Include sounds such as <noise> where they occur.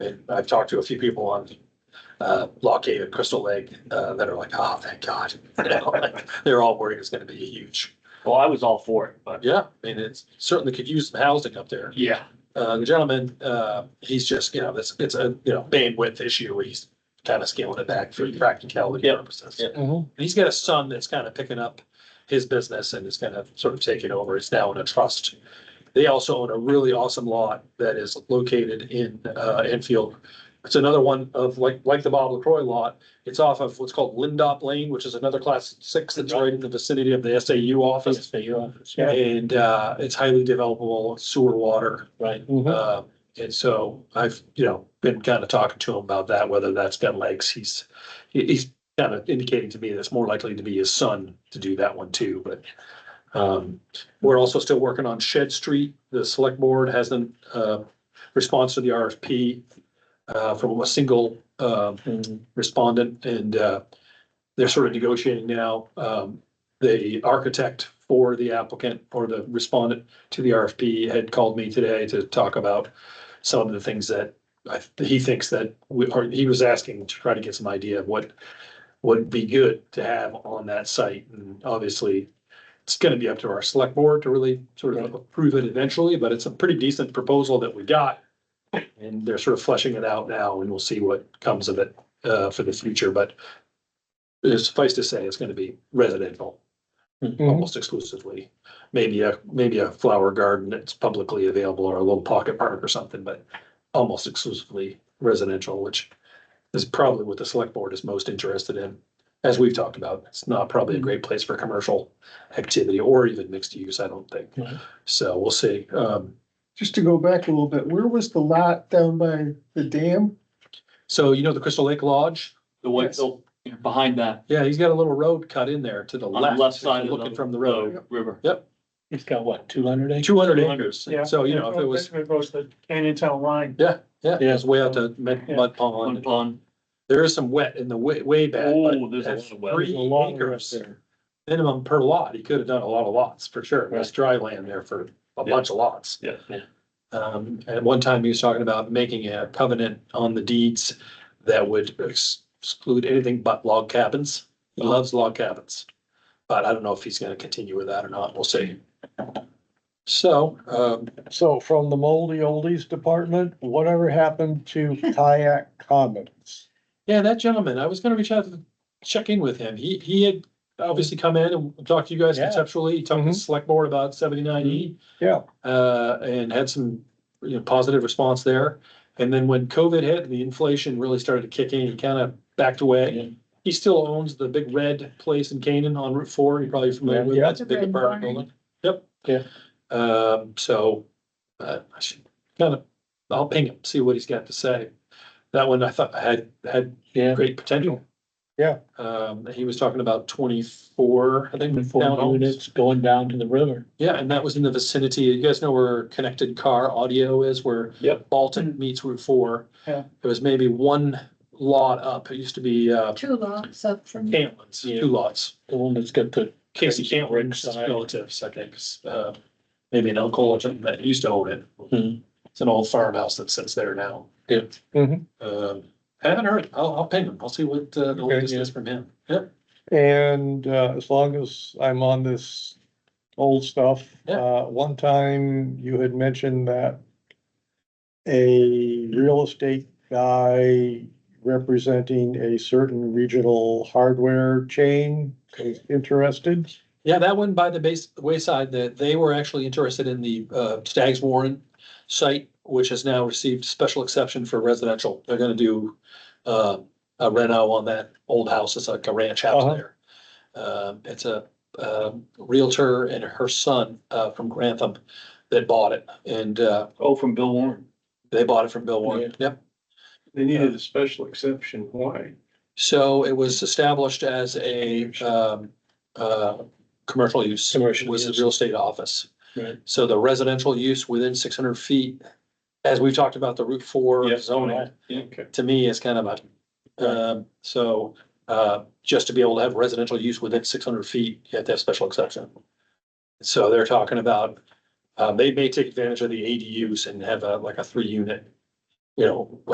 And I've talked to a few people on uh, Lock Cave and Crystal Lake uh, that are like, oh, thank God. <laughs> You know, like, They're all worried it's gonna be huge. Well, I was all for it, but. Yeah, I mean, it's certainly could use some housing up there. Yeah. Uh, the gentleman, uh, he's just, you know, this, it's a, you know, bandwidth issue. He's kind of scaling it back for practicality Yep. purposes. Yep. Mm-hmm. And he's got a son that's kind of picking up his business and is kind of sort of taking over. It's now in a trust. They also own a really awesome lot that is located in, uh, Enfield. It's another one of like, like the Bob LaCroy lot. It's off of what's called Lindop Lane, which is another class six that's right in the vicinity of the SAU office. And, uh, it's highly developable sewer water. Right. Uh, and so I've, you know, been kind of talking to him about that, whether that's got legs. He's, he- he's kind of indicating to me that it's more likely to be his son to do that one too, but. Um, we're also still working on Shed Street. The select board hasn't, uh, response to the RFP. Uh, from a single, um, respondent and uh, they're sort of negotiating now. Um, The architect for the applicant or the respondent to the RFP had called me today to talk about some of the things that I- he thinks that we, or he was asking to try to get some idea of what would be good to have on that site. And obviously, it's going to be up to our select board to really sort of Right. approve it eventually, but it's a pretty decent proposal that we got. And they're sort of fleshing it out now and we'll see what comes of it uh, for the future, but suffice to say, it's going to be residential almost exclusively. Maybe a, maybe a flower garden that's publicly available or a little pocket park or something, but almost exclusively residential, which is probably what the select board is most interested in. As we've talked about, it's not probably a great place for commercial activity or even mixed use, I don't think. Right. So we'll see. Um, Just to go back a little bit, where was the lot down by the dam? so you know the Crystal Lake Lodge? The white, the, behind that, Yeah, he's got a little road cut in there to the on the left. left if side you're of the. Looking from the road. River. He's got what, two hundred acres? Two hundred 200, acres. So, you know, if it was, It goes to Canyon Town Line. yeah, it was way out to Mud Mud One Pond. pond. There is some wet in the way, way back, but Oh, there's a that's lot of wet. three acres minimum per lot. He could have done a lot of lots for sure. There's dry land there for a Yeah. bunch of lots. Yeah, yeah. Um, at one time he was talking about making a covenant on the deeds that would ex- exclude anything but log cabins. He loves log cabins. But I don't know if he's gonna continue with that or not. We'll see. So, um, So from the moldy oldies department, whatever happened to kayak commons? Yeah, that gentleman, I was gonna reach out to check in with him. He, he had obviously come in and talked to you guys Yeah. conceptually, He talked to the Mhm. select board about seventy-nine E. Yeah. Uh, and had some, you know, positive response there. And then when COVID hit, the inflation really started to kick in, he kind of backed Yeah. away. He still owns the big red place in Canaan on Route Four, you're probably familiar Yeah. with, Yeah. that's a big The red apartment barn. building. Yep. Yeah. Um, so, uh, I should kind of, I'll ping him, see what he's got to say. That one I thought had, had Yeah. great potential. Yeah. Um, he was talking about twenty-four, I think. down Four homes. units going down to the river. Yeah, and that was in the vicinity, you guys know where Connected Car Audio is, where Yep. Bolton meets Route Four. Yeah. It was maybe one lot up, it used to be, uh, Two lots up from. Cantlin's, Yeah. two lots. The one that's got the, Casey Cantlin's Ringside. relatives, I think, uh, maybe an uncle or something that used to own it. Hmm. It's an old farmhouse that sits there now. Yeah. Mhm. Um, haven't heard, I'll, I'll ping him, I'll see what, uh, the Mm-hmm. Okay, latest yeah. is from him, yep. and uh, as long as I'm on this old stuff, Yeah. uh, one time you had mentioned that a real estate guy representing a certain regional hardware chain is interested. Yeah, that one by the base wayside, that they were actually interested in the uh Stags Warren site, which has now received special exception for residential. They're gonna do uh a reno on that old house. It's like a ranch house Uh-huh. there. Um, it's a um Realtor and her son uh from Grantham that bought it and uh Oh, from Bill Warren. they bought it from Bill Warren. Yep. They needed a special exception, why? So it was established as a um uh commercial use. Commercial Was a use. real estate office. Right. So the residential use within six hundred feet, as we've talked about the Route Four Yeah. zoning, Yeah. to me is kind of a, um, so uh, just to be able to have residential use within six hundred feet, you have to have special exception. So they're talking about, uh, they may take advantage of the ADUs and have a, like a three unit, you know,